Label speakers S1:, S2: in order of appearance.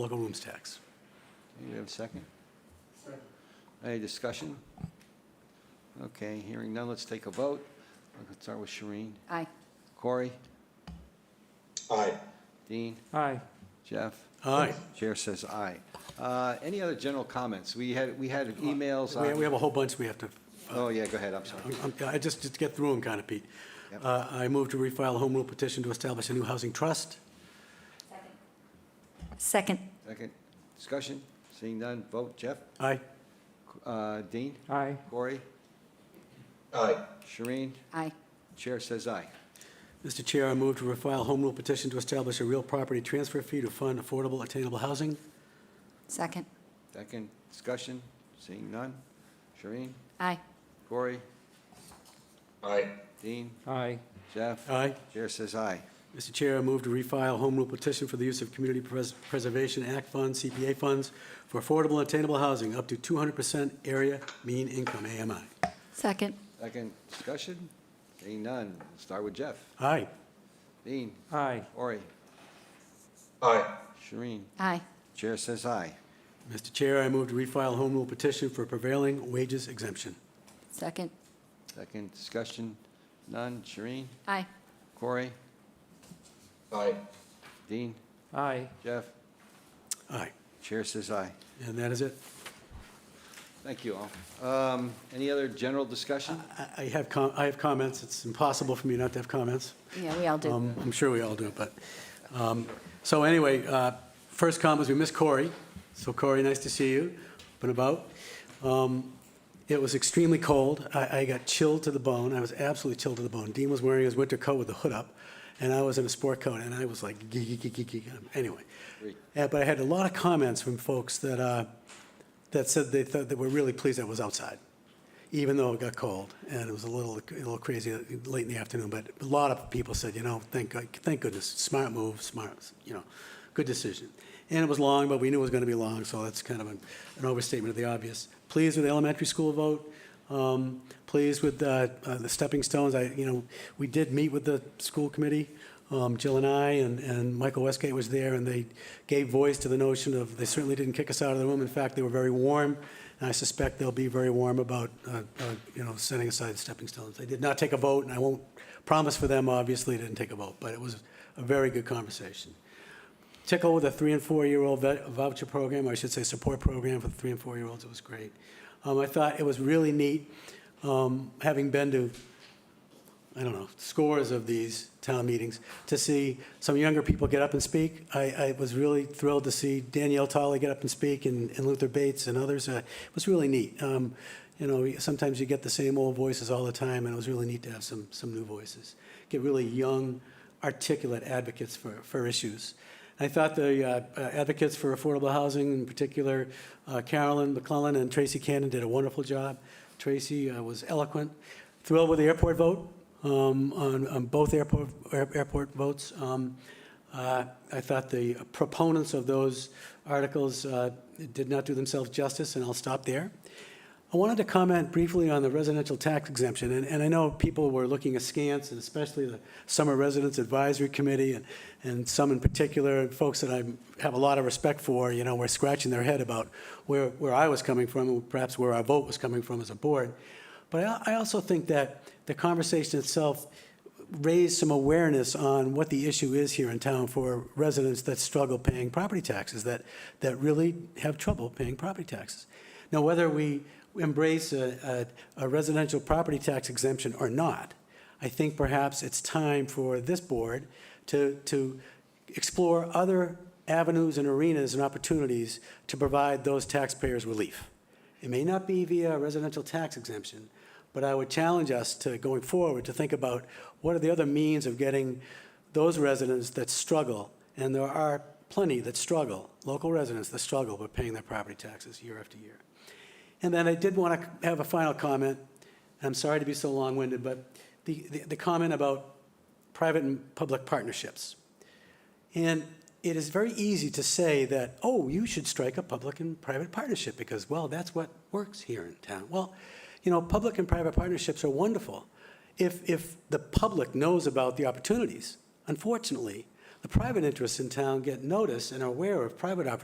S1: local rooms tax.
S2: Do we have a second? Any discussion? Okay, hearing none, let's take a vote. Let's start with Shireen.
S3: Aye.
S2: Corey?
S4: Aye.
S2: Dean?
S5: Aye.
S2: Jeff?
S1: Aye.
S2: Chair says aye. Uh, Any other general comments? We had, we had emails
S1: We we
S2: on,
S1: have a whole bunch we have to,
S2: oh, yeah, go ahead, I'm sorry.
S1: I'm- I'm- I just, just get through them kind of, Pete.
S2: Yep.
S1: Uh, I move to refile a home rule petition to establish a new housing trust.
S3: Second.
S2: Second, discussion, seeing none, vote, Jeff?
S1: Aye.
S2: Uh, Dean?
S5: Aye.
S2: Corey?
S4: Aye.
S2: Shireen?
S3: Aye.
S2: Chair says aye.
S1: Mr. Chair, I move to refile a home rule petition to establish a real property transfer fee to fund affordable attainable housing.
S3: Second.
S2: Second, discussion, seeing none, Shireen?
S3: Aye.
S2: Corey?
S4: Aye.
S2: Dean?
S5: Aye.
S2: Jeff?
S1: Aye.
S2: Chair says aye.
S1: Mr. Chair, I move to refile a home rule petition for the use of Community Pres- Preservation Act funds, CPA funds, for affordable attainable housing up to 200% area mean income, AMI.
S3: Second.
S2: Second discussion? Seeing none. We'll Start with Jeff.
S1: Aye.
S2: Dean,
S5: Aye.
S2: Ori,
S4: Aye.
S2: Shereen.
S3: Aye.
S2: Chair says aye.
S1: Mr. Chair, I move to refile home rule petition for prevailing wages exemption.
S3: Second.
S2: Second discussion? None. Shereen,
S3: Aye.
S2: Corey,
S4: Aye.
S2: Dean,
S5: Aye.
S2: Jeff.
S1: Aye.
S2: Chair says aye.
S1: And that is it.
S2: Thank you all. Um, Any other general discussion?
S1: I- I have, com- I have comments. It's impossible for me not to have comments.
S3: Yeah, we all do.
S1: Um, I'm sure we all do, but, um, so anyway, uh, first comment is we miss Corey. So Corey, nice to see you, up and about. Um, It was extremely cold. I I got chilled to the bone. I was absolutely chilled to the bone. Dean was wearing his winter coat with the hood up, and I was in a sport coat, and I was like, gee, gee, gee, gee, gee, anyway.
S2: Great.
S1: Uh, But I had a lot of comments from folks that, uh, that said they thought, that were really pleased I was outside, even though it got cold, and it was a little, a little crazy late in the afternoon, but a lot of people said, you know, thank, God- thank goodness, smart move, smart, you know, good decision. And it was long, but we knew it was gonna be long, so that's kind of an an overstatement of the obvious. Pleased with the elementary school vote, um, pleased with uh, uh, the stepping stones. I, you know, we did meet with the school committee, um, Jill and I, and, and Michael Westgate was there, and they gave voice to the notion of, they certainly didn't kick us out of the room. In fact, they were very warm, and I suspect they'll be very warm about, uh, uh, you know, setting aside stepping stones. They did not take a vote, and I won't promise for them, obviously, they didn't take a vote, but it was a very good conversation tickle with a three and four-year-old vou- voucher program, or I should say support program for the three and four-year-olds. It was great. Um, I thought it was really neat, um, having been to, I don't know, scores of these town meetings, to see some younger people get up and speak. I, I was really thrilled to see Danielle Tolley get up and speak and, and Luther Bates and others. Uh, it was really neat. Um, you know, sometimes you get the same old voices all the time, and it was really neat to have some, some new voices. Get really young, articulate advocates for, for issues. I thought the uh, uh, advocates for affordable housing, in particular uh, Carolyn McClellan and Tracy Cannon, did a wonderful job. Tracy uh, was eloquent. Thrilled with the airport vote, um, on on both airport air- airport votes. Um, uh, I thought the proponents of those articles uh, did not do themselves justice, and I'll stop there. I wanted to comment briefly on the residential tax exemption, and, and I know people were looking askance, and especially the Summer Residents Advisory Committee, and, and some in particular, folks that I have a lot of respect for, you know, were scratching their head about where, where I was coming from, and perhaps where our vote was coming from as a board. But I, I also think that the conversation itself raise some awareness on what the issue is here in town for residents that struggle paying property taxes, that, that really have trouble paying property taxes. Now, whether we embrace a, a a residential property tax exemption or not, I think perhaps it's time for this board to, to explore other avenues and arenas and opportunities to provide those taxpayers relief. It may not be via a residential tax exemption, but I would challenge us to, going forward, to think about what are the other means of getting those residents that struggle, and there are plenty that struggle, local residents that struggle with paying their property taxes year after year. And then I did want to have a final comment, and I'm sorry to be so long-winded, but the, the- the comment about private and public partnerships. And it is very easy to say that, oh, you should strike a public and private partnership because, well, that's what works here in town. Well, you know, public and private partnerships are wonderful if, if the public knows about the opportunities. Unfortunately, the private interests in town get notice and are aware of private opportunities.